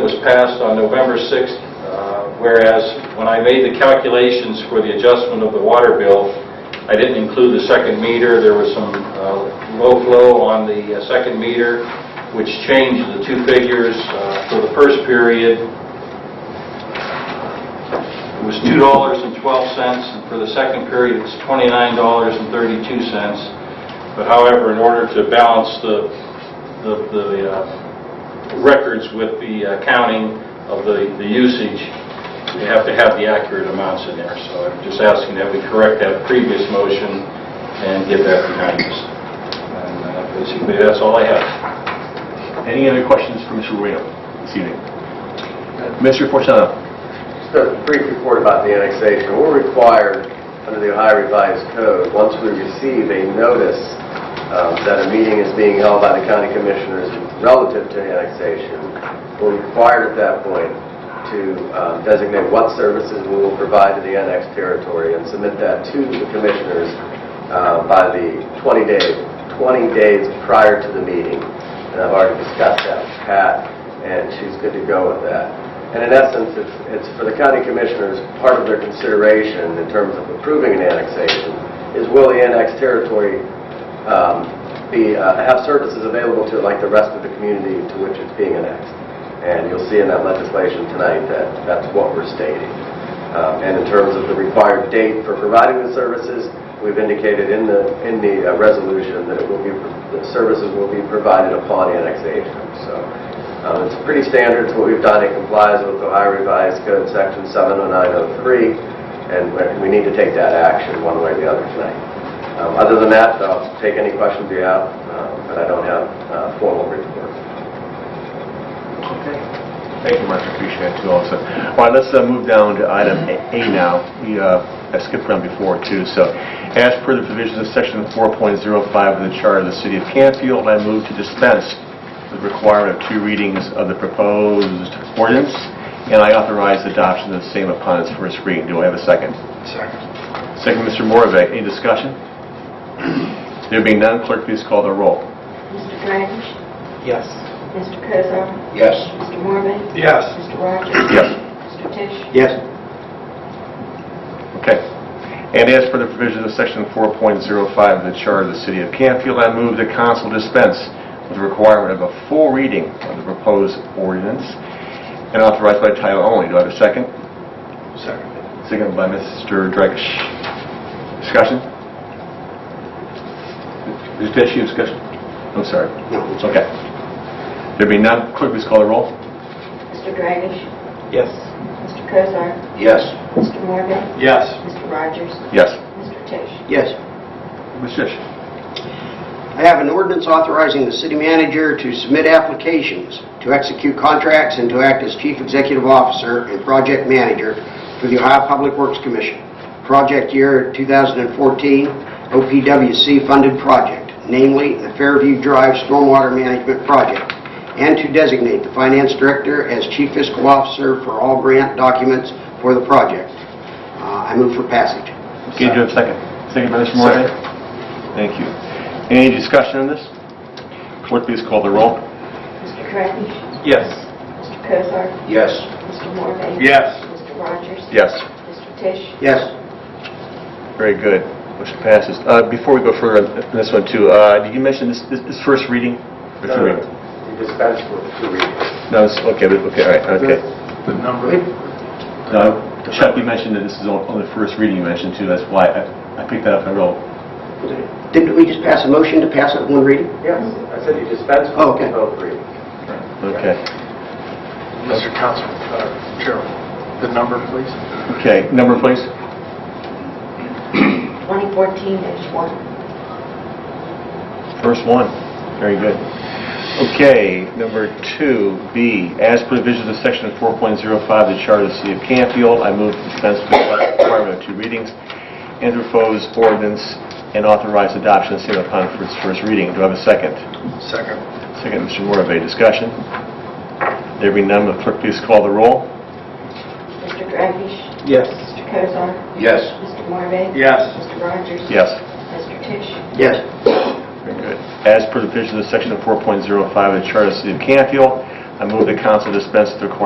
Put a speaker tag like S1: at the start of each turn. S1: was passed on November 6th, uh, whereas when I made the calculations for the adjustment of the water bill, I didn't include the second meter. There was some uh, low flow on the uh, second meter, which changed the two figures uh, for the first period. It was $2.12, and for the second period, it's $29.32. But however, in order to balance the, the, the uh, records with the uh, counting of the, the usage, we have to have the accurate amounts in there. So I'm just asking that we correct that previous motion and get that behind us. And uh, basically, that's all I have.
S2: Any other questions for Mr. Reno this evening? Mr. Fortunato?
S3: Just a brief report about the annexation. We're required, under the Ohio Revised Code, once we receive a notice um, that a meeting is being held by the county commissioners relative to annexation, we're required at that point to um, designate what services we will provide to the annexed territory and submit that to the commissioners uh, by the 20 day, 20 days prior to the meeting. And I've already discussed that with Pat, and she's good to go with that. And in essence, it's, it's for the county commissioners, part of their consideration in terms of approving an annexation is will the annexed territory um, be, uh, have services available to it like the rest of the community to which it's being annexed? And you'll see in that legislation tonight that that's what we're stating. Um, And in terms of the required date for providing the services, we've indicated in the, in the uh, resolution that it will be, the services will be provided upon annexation. So um, It's pretty standard, it's what we've done, it complies with Ohio Revised Code Section 70903, and we- we need to take that action one way or the other tonight. Um, Other than that, I'll take any questions you have, uh, but I don't have uh, formal reports.
S2: Thank you, Mark, appreciate that too also. All right, let's uh, move down to item A A now. We uh, I skipped around before too, so as per the provisions of section 4.05 of the Charter of the City of Canfield, I move to dispense with the requirement of two readings of the proposed ordinance, and I authorize adoption of the same upon its first reading. Do I have a second? Second. Second, Mr. Morvay, any discussion? There being none, clerk, please call the roll.
S4: Mr. Dragish?
S5: Yes.
S4: Mr. Cosar?
S5: Yes.
S4: Mr. Morbe?
S5: Yes.
S4: Mr. Rogers?
S2: Yes.
S4: Mr. Tisch?
S5: Yes.
S2: Okay. And as for the provisions of Section 4.05 of the Charter of the City of Canfield, I move the council dispense with the requirement of a full reading of the proposed ordinance and authorize by title only. Do I have a second?
S5: Second.
S2: Second by Mr. Dragish. Discussion? Is there any discussion? I'm sorry.
S5: No. it's okay.
S2: Okay. There being none, clerk, please call the roll.
S4: Mr. Dragish?
S5: Yes.
S4: Mr. Cosar?
S5: Yes.
S4: Mr. Morbe?
S5: Yes.
S4: Mr. Rogers?
S2: Yes.
S4: Mr. Tisch?
S5: Yes.
S2: Ms. Tisch?
S5: I have an ordinance authorizing the city manager to submit applications, to execute contracts, and to act as chief executive officer and project manager for the Ohio Public Works Commission. Project year 2014, OPWC-funded project, namely the Fairview Drive Stormwater Management Project, and to designate the finance director as chief fiscal officer for all grant documents for the project. Uh, I move for passage.
S2: Okay, do you have a second? Second by Mr. Morvay? Thank you. Any discussion on this? Clerk, please call the roll.
S4: Mr. Dragish?
S5: Yes.
S4: Mr. Cosar?
S5: Yes.
S4: Mr. Morbe?
S5: Yes.
S4: Mr. Rogers?
S2: Yes.
S4: Mr. Tisch?
S5: Yes.
S2: Very good. Motion passes. Uh, Before we go further on this one too, uh, did you mention this this- this first reading? First
S3: No, no,
S2: reading.
S3: You dispense with two readings.
S2: No, it's, okay, but- okay, all right, okay. No, Chuck, you mentioned that this is on on the first reading you mentioned too, that's why I- I picked that up and wrote.
S5: Didn't we just pass a motion to pass it in one reading?
S3: Yes, I said you dispense
S5: Oh, okay.
S3: with both readings.
S2: Okay.
S6: Mr. Council, uh, Chair, the number, please.
S2: Okay, number please?
S4: 2014-1.
S2: First one. Very good. Okay, number two, B, as per the provisions of section 4.05 of the Charter of the City of Canfield, I move to dispense with the requirement of two readings and propose ordinance and authorize adoption of same upon its first reading. Do I have a second?
S6: Second.
S2: Second, Mr. Morve, discussion? There being none, will the clerk please call the roll?
S4: Mr. Dragish?
S5: Yes.
S4: Mr. Cosar?
S5: Yes.
S4: Mr. Morbe?
S6: Yes.
S4: Mr. Rogers?
S2: Yes.
S4: Mr. Tisch?
S5: Yes.
S2: Very good. As per the provisions of section 4.05 of the Charter of the City of Canfield, I move the council dispense with the requirement